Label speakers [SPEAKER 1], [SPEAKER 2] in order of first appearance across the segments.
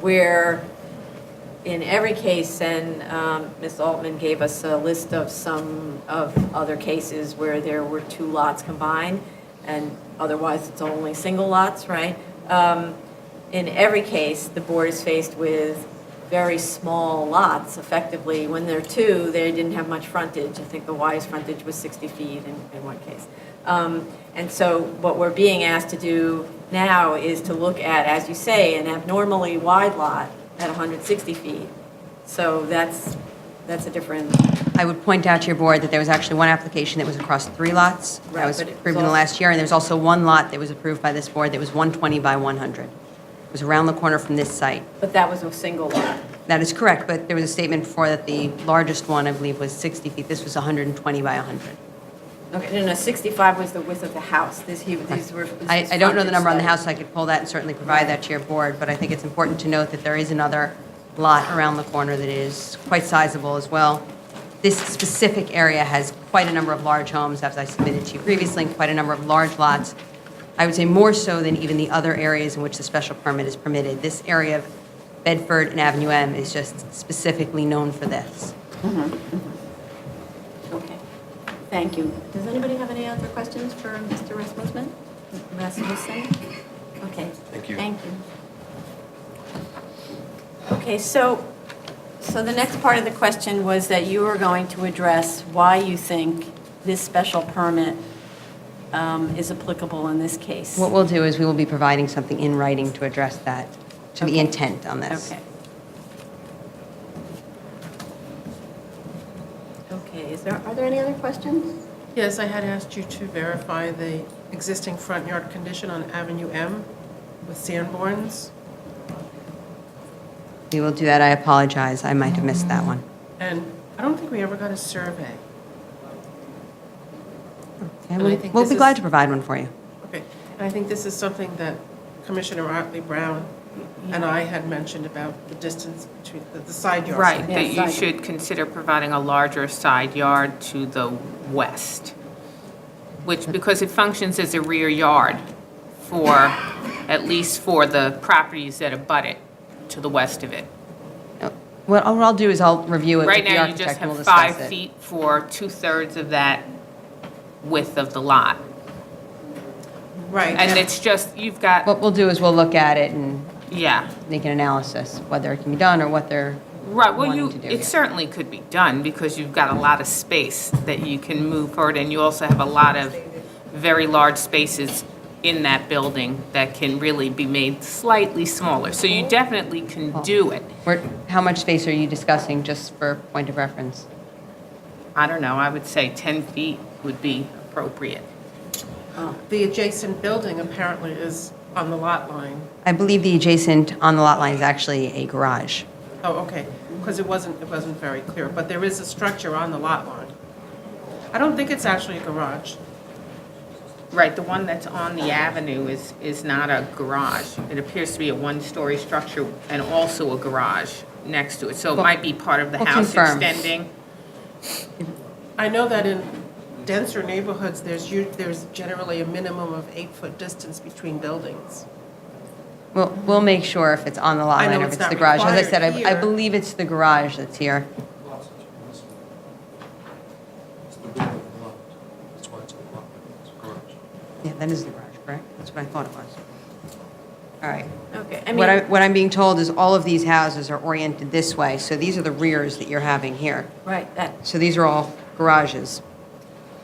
[SPEAKER 1] where, in every case, and um, Ms. Altman gave us a list of some of other cases where there were two lots combined, and otherwise it's only single lots, right? Um, In every case, the board is faced with very small lots, effectively. When there are two, they didn't have much frontage. I think the widest frontage was 60 feet in in one case. Um, And so what we're being asked to do now is to look at, as you say, an abnormally wide lot at 160 feet. So that's, that's a different,
[SPEAKER 2] I would point out to your board that there was actually one application that was across three lots.
[SPEAKER 1] Right,
[SPEAKER 2] That was
[SPEAKER 1] but it
[SPEAKER 2] approved
[SPEAKER 1] was
[SPEAKER 2] in the
[SPEAKER 1] also-
[SPEAKER 2] last year, and there's also one lot that was approved by this board that was 120 by 100. It was around the corner from this site.
[SPEAKER 1] but that was a single lot.
[SPEAKER 2] That is correct, but there was a statement before that the largest one, I believe, was 60 feet. This was 120 by 100.
[SPEAKER 1] Okay, no, no, 65 was the width of the house. This, he, these were. this
[SPEAKER 2] I,
[SPEAKER 1] is
[SPEAKER 2] I don't know the
[SPEAKER 1] frontage
[SPEAKER 2] number on the
[SPEAKER 1] that-
[SPEAKER 2] house, so I could pull that and certainly provide that to your board, but I think it's important to note that there is another lot around the corner that is quite sizable as well. This specific area has quite a number of large homes, as I submitted to you previously, and quite a number of large lots. I would say more so than even the other areas in which the special permit is permitted. This area of Bedford and Avenue M is just specifically known for this.
[SPEAKER 1] Okay, thank you. Does anybody have any other questions for Mr. Rasmussen? Rasmussen? Okay.
[SPEAKER 3] Thank you.
[SPEAKER 1] Thank you. Okay, so, so the next part of the question was that you were going to address why you think this special permit um, is applicable in this case.
[SPEAKER 2] What we'll do is we will be providing something in writing to address that, to the intent on this.
[SPEAKER 1] Okay. Okay, is there, are there any other questions?
[SPEAKER 4] Yes, I had asked you to verify the existing front yard condition on Avenue M with Sanborn's,
[SPEAKER 2] We will do that. I apologize. I might have missed that one.
[SPEAKER 4] and I don't think we ever got a survey.
[SPEAKER 2] Okay,
[SPEAKER 4] And I
[SPEAKER 2] we'll-
[SPEAKER 4] think
[SPEAKER 2] We'll
[SPEAKER 4] this
[SPEAKER 2] be
[SPEAKER 4] is-
[SPEAKER 2] glad to provide one for you.
[SPEAKER 4] Okay, and I think this is something that Commissioner Otley Brown and I had mentioned about the distance between, the- the side yard.
[SPEAKER 5] Right,
[SPEAKER 1] Yeah,
[SPEAKER 5] that you
[SPEAKER 1] side.
[SPEAKER 5] should consider providing a larger side yard to the west, which, because it functions as a rear yard for, at least for the properties that abut it to the west of it.
[SPEAKER 2] Uh, What I'll what I'll do is I'll review it
[SPEAKER 5] Right
[SPEAKER 2] with the
[SPEAKER 5] now, you just
[SPEAKER 2] architect and we'll
[SPEAKER 5] have
[SPEAKER 2] discuss it.
[SPEAKER 5] five feet for two-thirds of that width of the lot.
[SPEAKER 4] Right.
[SPEAKER 5] And it's just, you've got,
[SPEAKER 2] What we'll do is we'll look at it and
[SPEAKER 5] yeah.
[SPEAKER 2] make an analysis, whether it can be done or what they're
[SPEAKER 5] Right, well,
[SPEAKER 2] wanting
[SPEAKER 5] you,
[SPEAKER 2] to do.
[SPEAKER 5] it certainly could be done, because you've got a lot of space that you can move forward, and you also have a lot of very large spaces in that building that can really be made slightly smaller, so
[SPEAKER 2] Oh.
[SPEAKER 5] you definitely can do it.
[SPEAKER 2] Where- How much space are you discussing, just for point of reference?
[SPEAKER 5] I don't know, I would say 10 feet would be appropriate.
[SPEAKER 4] The adjacent building apparently is on the lot line.
[SPEAKER 2] I believe the adjacent on the lot line is actually a garage.
[SPEAKER 4] Oh, okay, because it wasn't, it wasn't very clear, but there is a structure on the lot line. I don't think it's actually a garage.
[SPEAKER 5] Right, the one that's on the avenue is, is not a garage. It appears to be a one-story structure and also a garage next to it, so it might be part of the
[SPEAKER 2] We'll
[SPEAKER 5] house
[SPEAKER 2] confirm.
[SPEAKER 5] extending.
[SPEAKER 4] I know that in denser neighborhoods, there's, u- there's generally a minimum of eight-foot distance between buildings.
[SPEAKER 2] We'll, we'll make sure if it's on the lot
[SPEAKER 4] I know
[SPEAKER 2] line or if
[SPEAKER 4] it's
[SPEAKER 2] it's
[SPEAKER 4] not
[SPEAKER 2] the garage. As I said, I- I
[SPEAKER 4] required here.
[SPEAKER 2] believe it's the garage that's here.
[SPEAKER 3] Lots of trees. It's the big one, the lot. That's why it's a lot, it's a garage.
[SPEAKER 2] Yeah, that is the garage, correct? That's what I thought it was. All right.
[SPEAKER 1] Okay, I mean.
[SPEAKER 2] What I, what I'm being told is all of these houses are oriented this way, so these are the rears that you're having here.
[SPEAKER 1] Right, that,
[SPEAKER 2] So these are all garages.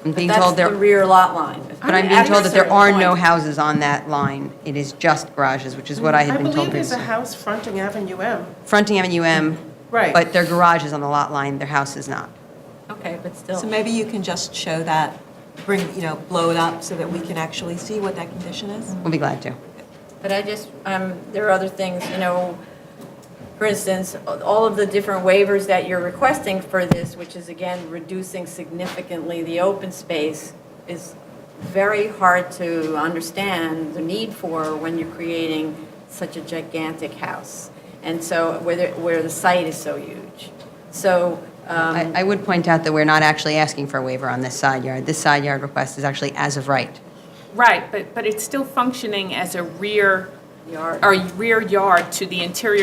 [SPEAKER 2] I'm
[SPEAKER 1] but
[SPEAKER 2] being
[SPEAKER 1] that's
[SPEAKER 2] told
[SPEAKER 1] the
[SPEAKER 2] there,
[SPEAKER 1] rear lot line.
[SPEAKER 2] but I'm being told that there are no houses on that line. It is just garages, which is what I had been
[SPEAKER 4] Mm, believe
[SPEAKER 2] told
[SPEAKER 4] there's a
[SPEAKER 2] previously.
[SPEAKER 4] house fronting Avenue M.
[SPEAKER 2] Fronting Avenue M.
[SPEAKER 4] Right.
[SPEAKER 2] But their garage is on the lot line, their house is not.
[SPEAKER 1] Okay, but still.
[SPEAKER 6] So maybe you can just show that, bring, you know, blow it up so that we can actually see what that condition is?
[SPEAKER 2] We'll be glad to.
[SPEAKER 1] But I just, um, there are other things, you know, for instance, all of the different waivers that you're requesting for this, which is again, reducing significantly the open space, is very hard to understand the need for when you're creating such a gigantic house. And so, where, the- where the site is so huge. So, um,
[SPEAKER 2] I, I would point out that we're not actually asking for a waiver on this side yard. This side yard request is actually as of right.
[SPEAKER 5] Right, but, but it's still functioning as a rear,
[SPEAKER 1] Yard.
[SPEAKER 5] or rear yard to the interior